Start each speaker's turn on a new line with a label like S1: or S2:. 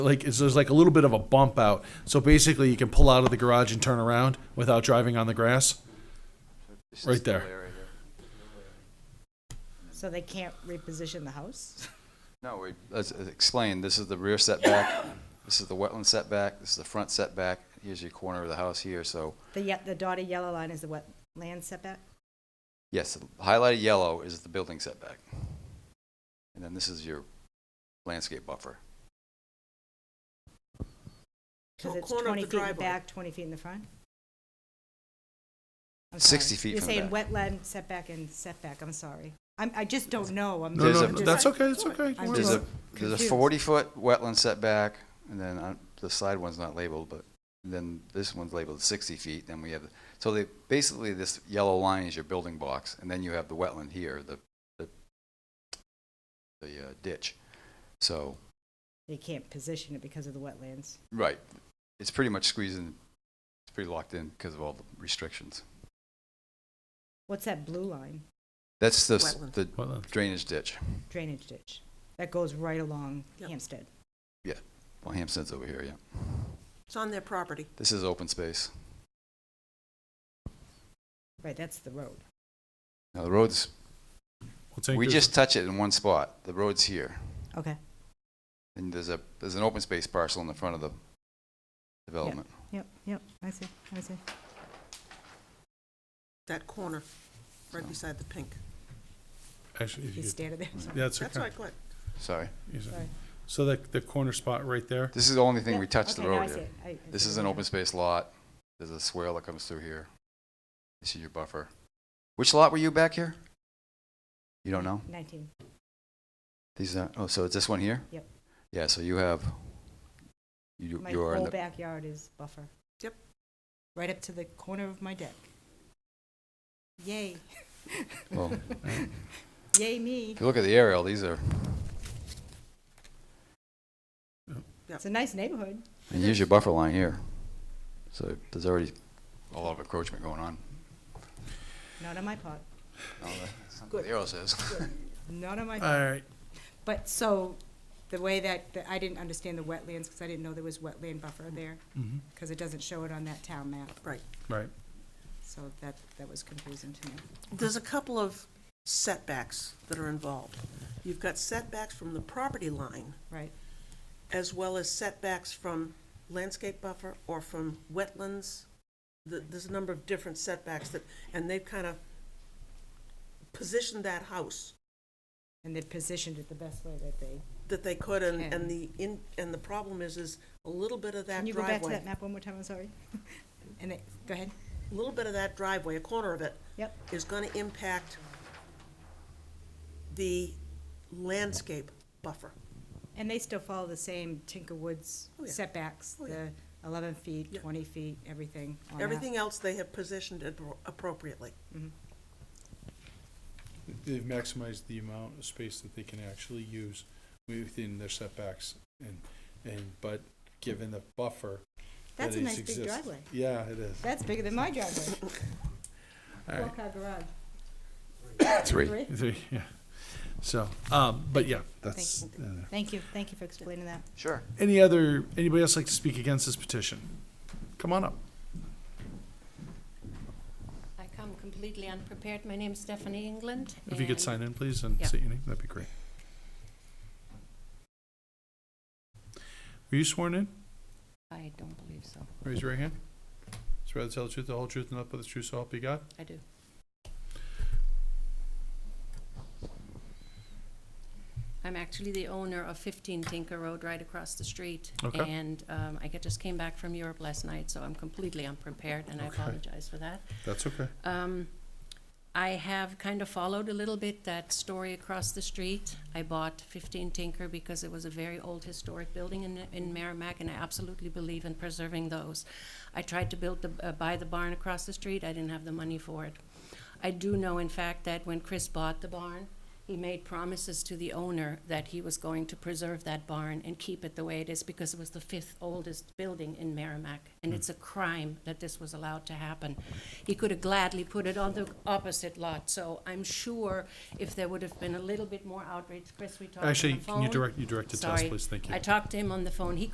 S1: like it's, there's like a little bit of a bump out. So basically, you can pull out of the garage and turn around without driving on the grass.
S2: This
S1: Right
S2: is the
S1: there.
S2: way right here.
S3: So they can't reposition the house?
S2: No, we, let's explain, this is the rear setback, this is the wetland setback, this is the front setback, here's your corner of the house here, so,
S3: The, ye- the dotted yellow line is the wet land setback?
S2: yes, the highlighted yellow is the building setback. And then this is your landscape buffer.
S3: Because
S4: Well,
S3: it's
S4: corner of
S3: 20
S4: the
S3: feet in the
S4: driveway.
S3: back, 20 feet in the front? I'm
S2: 60
S3: sorry.
S2: feet from the
S3: You're saying wetland setback and setback, I'm sorry. I'm, I just don't know. I'm
S1: No,
S2: There's
S1: no,
S2: a-
S3: I'm just-
S1: that's okay. That's okay.
S3: I'm
S2: There's a,
S3: just
S2: there's a
S3: confused.
S2: forty-foot wetland setback, and then on, the side one's not labeled, but then this one's labeled sixty feet, then we have, so they, basically this yellow line is your building box, and then you have the wetland here, the, the, the uh, ditch. So,
S3: They can't position it because of the wetlands.
S2: right, it's pretty much squeezing, it's pretty locked in because of all the restrictions.
S3: What's that blue line
S2: That's the, s-
S4: Wetland.
S2: the
S1: Wetland.
S2: drainage ditch.
S3: drainage ditch that goes right along
S4: Yep.
S3: Hampstead?
S2: Well, Hampstead's over here, yeah.
S4: It's on their property.
S2: This is open space.
S3: Right, that's the road.
S2: Now, the roads,
S1: We'll take
S2: we
S1: this.
S2: just touch it in one spot. The road's here.
S3: Okay.
S2: And there's a, there's an open space parcel in the front of the development.
S3: Yep, yep, I see, I see.
S4: That corner, right beside the pink.
S1: actually. If
S3: You
S1: you could,
S3: standing there?
S1: yeah, it's
S4: That's
S1: okay.
S4: what I clicked.
S2: Sorry.
S1: Yes, sir.
S3: Sorry.
S1: So that the corner spot right there.
S2: This is the only thing we
S3: Yep,
S2: touched the
S3: okay, now I
S2: road
S3: see
S2: here.
S3: it. I- I
S2: This
S3: see
S2: is
S3: it
S2: an
S3: now.
S2: open space lot. There's a swale that comes through here. This is your buffer. Which lot were you back here? You don't know?
S3: 19,
S2: These are, oh, so it's this one here?
S3: Yep.
S2: Yeah, so you have, you,
S3: my
S2: you are in
S3: whole
S2: the,
S3: backyard is buffer.
S4: Yep.
S3: Right up to the corner of my deck. Yay,
S2: well,
S3: yay me.
S2: if you look at the aerial, these are,
S3: It's a nice neighborhood.
S2: and here's your buffer line here. So there's already a lot of encroachment going on.
S3: Not on my pot,
S2: The arrow says.
S3: not on my,
S4: Uh.
S1: All right.
S3: but so, the way that, that- I didn't understand the wetlands, because I didn't know there was wetland buffer there,
S1: Mm-hmm.
S3: because it doesn't show it on that town map,
S1: Right.
S3: so that, that was confusing to me.
S4: There's a couple of setbacks that are involved. You've got setbacks from the property line,
S3: Right,
S4: as well as setbacks from landscape buffer or from wetlands. Th- There's a number of different setbacks that, and they've kind of positioned that house
S3: and they positioned it the best way that they.
S4: that they could, and,
S3: Okay.
S4: and the, in and the problem is, is a little bit of that
S3: Can you go back to
S4: driveway,
S3: that map one more time, I'm sorry? And it, go ahead,
S4: a little bit of that driveway, a corner of it,
S3: yep,
S4: is gonna impact the landscape buffer.
S3: and they still follow the same Tinker Woods
S4: Oh, yeah.
S3: setbacks,
S4: Oh,
S3: the
S4: yeah.
S3: eleven feet,
S4: Yeah.
S3: twenty feet, everything on that.
S4: Everything else, they have positioned it appropriately.
S5: They've maximized the amount of space that they can actually use within their setbacks and, and, but given the buffer. that
S3: That's a
S5: is
S3: nice big
S5: exist-
S3: driveway,
S5: Yeah, it is.
S3: that's bigger than my driveway,
S1: All right.
S3: four car garage.
S2: Three.
S1: Three, Yeah. So, um, but yeah, that's.
S3: Thank
S5: uh,
S3: Thank you, thank you for explaining that.
S2: Sure.
S1: Any other, anybody else like to speak against this petition? Come on up.
S6: I come completely unprepared. My name's Stephanie England.
S1: If you could
S6: and-
S1: sign in, please, and
S6: Yeah.
S1: state your name, that'd be great. Were you sworn in?
S6: I don't believe so.
S1: Raise your right hand. Swear to tell the truth, the whole truth, and nothing but the truth, so help you God.
S6: I do. I'm actually the owner of 15 Tinker Road right across the street.
S1: Okay.
S6: And um, I get- just came back from Europe last night, so I'm completely unprepared, and I
S1: Okay.
S6: apologize for that.
S1: That's okay.
S6: Um, I have kind of followed a little bit that story across the street. I bought 15 Tinker because it was a very old historic building in, in Merrimack, and I absolutely believe in preserving those. I tried to build the, uh, buy the barn across the street. I didn't have the money for it. I do know, in fact, that when Chris bought the barn, he made promises to the owner that he was going to preserve that barn and keep it the way it is because it was the fifth oldest building in Merrimack. And it's a crime that this was allowed to happen. He could have gladly put it on the opposite lot. So I'm sure if there would have been a little bit more outreach, Chris, we talked on the phone.
S1: Actually, can you direct, you direct the test,
S6: Sorry.
S1: please? Thank you.
S6: I talked to him on the phone. He